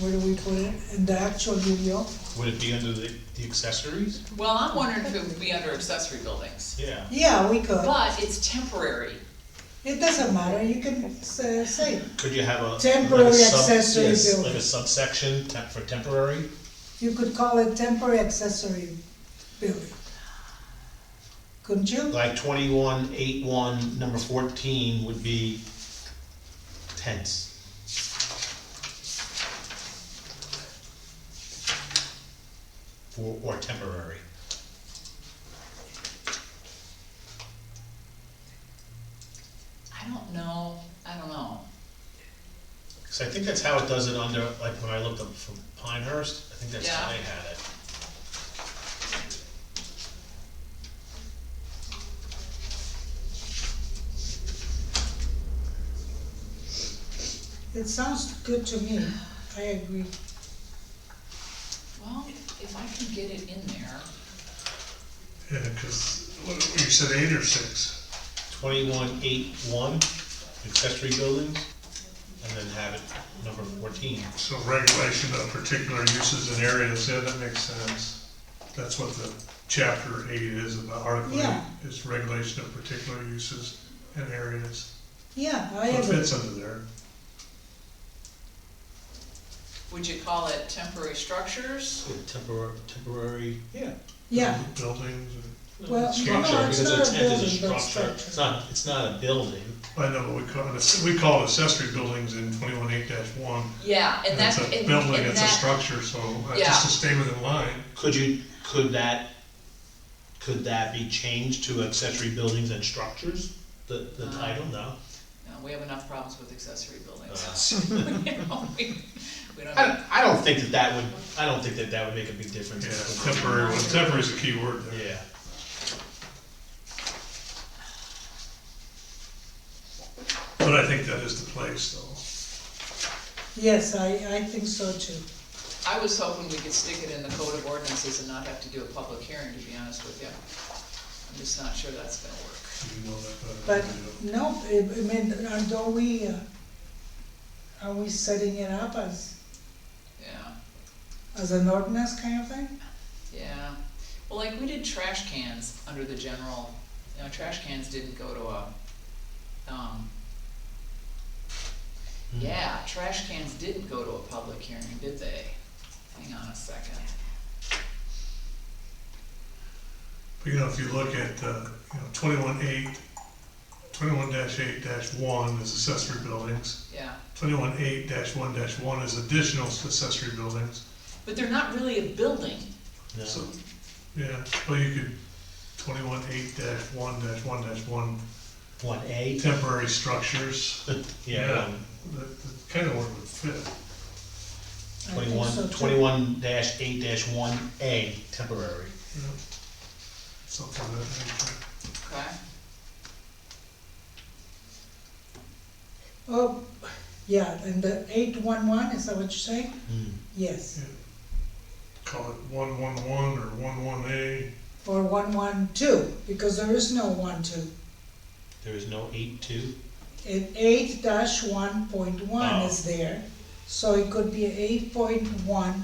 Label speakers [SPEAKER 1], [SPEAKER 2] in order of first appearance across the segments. [SPEAKER 1] where do we put it? In the actual UDO?
[SPEAKER 2] Would it be under the, the accessories?
[SPEAKER 3] Well, I'm wondering if it would be under accessory buildings,
[SPEAKER 2] Yeah.
[SPEAKER 1] Yeah, we could.
[SPEAKER 3] but it's temporary.
[SPEAKER 1] It doesn't matter, you can s- say,
[SPEAKER 2] Could you have a?
[SPEAKER 1] Temporary
[SPEAKER 2] like a sub-
[SPEAKER 1] accessory
[SPEAKER 2] yes,
[SPEAKER 1] building.
[SPEAKER 2] Like a subsection temp, for temporary?
[SPEAKER 1] you could call it temporary accessory building. Couldn't you?
[SPEAKER 2] Like twenty-one, eight, one, number fourteen would be tents. For, or temporary.
[SPEAKER 3] I don't know, I don't know.
[SPEAKER 2] Cause I think that's how it does it under, like when I looked up for Pinehurst, I think that's how
[SPEAKER 3] Yeah.
[SPEAKER 2] they had it.
[SPEAKER 1] It sounds good to me, I agree.
[SPEAKER 3] Well, if I can get it in there,
[SPEAKER 4] Yeah, because you said eight or six.
[SPEAKER 2] Twenty-one, eight, one, accessory buildings, and then have it number fourteen.
[SPEAKER 4] So regulation of particular uses and areas, yeah, that makes sense. That's what the chapter eight is about, article eight,
[SPEAKER 1] Yeah.
[SPEAKER 4] is regulation of particular uses and areas.
[SPEAKER 1] Yeah, I
[SPEAKER 4] What
[SPEAKER 1] agree.
[SPEAKER 4] fits under there?
[SPEAKER 3] would you call it temporary structures?
[SPEAKER 2] Temporary, temporary. Yeah.
[SPEAKER 1] Yeah,
[SPEAKER 4] Buildings,
[SPEAKER 1] Well, no,
[SPEAKER 2] Structure,
[SPEAKER 1] it's
[SPEAKER 2] because
[SPEAKER 1] not a
[SPEAKER 2] a tent is a
[SPEAKER 1] building, but it's
[SPEAKER 2] structure,
[SPEAKER 1] structure.
[SPEAKER 2] it's not, it's not a building.
[SPEAKER 4] and- I know, we call it, we call it accessory buildings in twenty-one eight dash one.
[SPEAKER 3] Yeah, and that's,
[SPEAKER 4] It's a
[SPEAKER 3] and and
[SPEAKER 4] building, it's a
[SPEAKER 3] that,
[SPEAKER 4] structure, so uh,
[SPEAKER 3] Yeah.
[SPEAKER 4] just to stay within line,
[SPEAKER 2] Could you, could that, could that be changed to accessory buildings and structures? The, the
[SPEAKER 3] Uh.
[SPEAKER 2] title, no?
[SPEAKER 3] no, we have enough problems with accessory
[SPEAKER 4] Uh-huh.
[SPEAKER 3] buildings.
[SPEAKER 2] Uh,
[SPEAKER 3] You know, We we don't
[SPEAKER 2] I,
[SPEAKER 3] need,
[SPEAKER 2] don't- I don't think that that would, I don't think that that would make a big difference.
[SPEAKER 4] yeah, temporary, well, temporary is a key word there.
[SPEAKER 2] Yeah.
[SPEAKER 4] But I think that is the place, though.
[SPEAKER 1] yes, I, I think so too.
[SPEAKER 3] I was hoping we could stick it in the code of ordinances and not have to do a public hearing, to be honest with you. I'm just not sure that's gonna work.
[SPEAKER 4] You know that better
[SPEAKER 1] But,
[SPEAKER 4] than I
[SPEAKER 1] no, I
[SPEAKER 4] do.
[SPEAKER 1] I mean, are don't we, uh, are we setting it up as,
[SPEAKER 3] Yeah,
[SPEAKER 1] as an ordinance kind of thing?
[SPEAKER 3] yeah. Well, like, we did trash cans under the general, you know, trash cans didn't go to a, um,
[SPEAKER 4] Hmm.
[SPEAKER 3] yeah, trash cans didn't go to a public hearing, did they? Hang on a second.
[SPEAKER 4] But you know, if you look at, uh, you know, twenty-one eight, twenty-one dash eight dash one is accessory buildings.
[SPEAKER 3] Yeah,
[SPEAKER 4] Twenty-one eight dash one dash one is additional accessory buildings.
[SPEAKER 3] but they're not really a building.
[SPEAKER 2] No.
[SPEAKER 4] So, yeah, well, you could, twenty-one eight dash one dash one dash one,
[SPEAKER 2] One A?
[SPEAKER 4] temporary structures.
[SPEAKER 2] Yeah, one-
[SPEAKER 4] That, that kind of would fit.
[SPEAKER 1] I think so,
[SPEAKER 2] twenty-one,
[SPEAKER 1] too.
[SPEAKER 2] twenty-one dash eight dash one A, temporary.
[SPEAKER 4] you know, Something that, nature.
[SPEAKER 3] Okay.
[SPEAKER 1] Oh, yeah, and the eight one one, is that what you're saying? Yes,
[SPEAKER 4] call it one one one or one one A.
[SPEAKER 1] or one one two, because there is no one two.
[SPEAKER 2] There is no eight-two?
[SPEAKER 1] And eight dash one point one
[SPEAKER 2] Oh.
[SPEAKER 1] is there, so it could be eight point one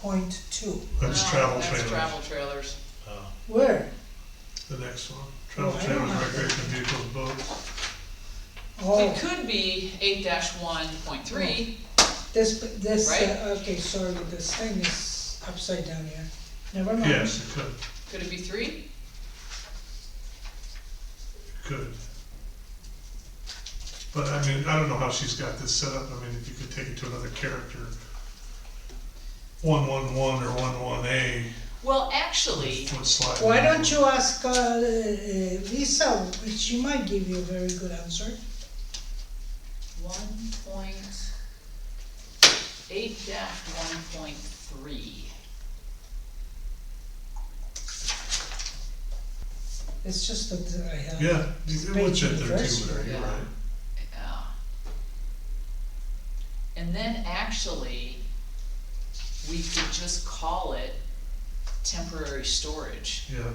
[SPEAKER 1] point two.
[SPEAKER 4] That's
[SPEAKER 3] No,
[SPEAKER 4] travel
[SPEAKER 3] That's
[SPEAKER 4] trailers,
[SPEAKER 3] travel trailers.
[SPEAKER 2] Oh,
[SPEAKER 1] Where?
[SPEAKER 4] the next one.
[SPEAKER 1] Oh, I
[SPEAKER 4] Travel
[SPEAKER 1] don't
[SPEAKER 4] trailers,
[SPEAKER 1] have that.
[SPEAKER 4] recreational vehicles, boats.
[SPEAKER 1] Oh,
[SPEAKER 3] It could be eight one point three,
[SPEAKER 4] Oh.
[SPEAKER 1] this, this, uh,
[SPEAKER 3] Right.
[SPEAKER 1] okay, sorry, this thing is upside down here. Never mind.
[SPEAKER 4] Yes, it could,
[SPEAKER 3] could it be three?
[SPEAKER 4] could. But I mean, I don't know how she's got this set up. I mean, if you could take it to another character. One one one or one one A
[SPEAKER 3] Well, actually,
[SPEAKER 4] would slide.
[SPEAKER 1] Why don't you ask uh, uh, Lisa, she might give you a very good answer.
[SPEAKER 3] one point, eight one point three.
[SPEAKER 1] It's just that I have.
[SPEAKER 4] Yeah, it would fit there
[SPEAKER 1] Space
[SPEAKER 4] too, Larry, you're
[SPEAKER 3] yeah.
[SPEAKER 4] right.
[SPEAKER 3] Yeah. And then actually, we could just call it temporary storage.
[SPEAKER 4] Yeah,